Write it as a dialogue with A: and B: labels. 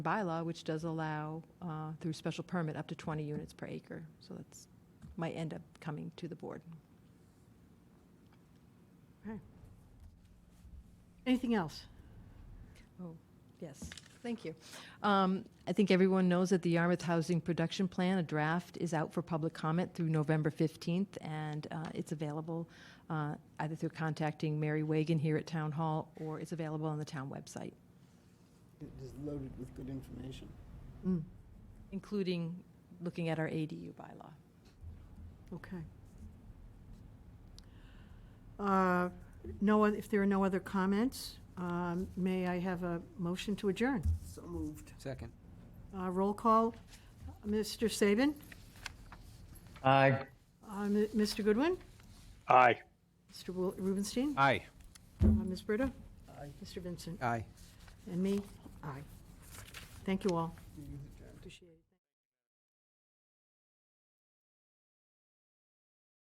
A: bylaw, which does allow uh, through special permit up to 20 units per acre. So that's, might end up coming to the board.
B: Anything else?
A: Yes, thank you. Um, I think everyone knows that the Yarmouth Housing Production Plan, a draft, is out for public comment through November 15th, and uh, it's available uh, either through contacting Mary Wagon here at Town Hall, or it's available on the town website,
C: It is loaded with good information.
B: Mm,
A: including looking at our ADU bylaw.
B: Okay. Uh, No, oth- if there are no other comments, um, may I have a motion to adjourn?
C: So moved.
D: Second.
B: Uh, Roll call, Mr. Saban,
E: Aye.
B: Uh, M- Mr. Goodwin,
F: Aye.
B: Mr. Wil- Rubenstein,
D: Aye.
B: uh, Ms. Britta,
C: Aye.
B: Mr. Vincent,
D: Aye.
B: and me, aye. Thank you all. Appreciate it.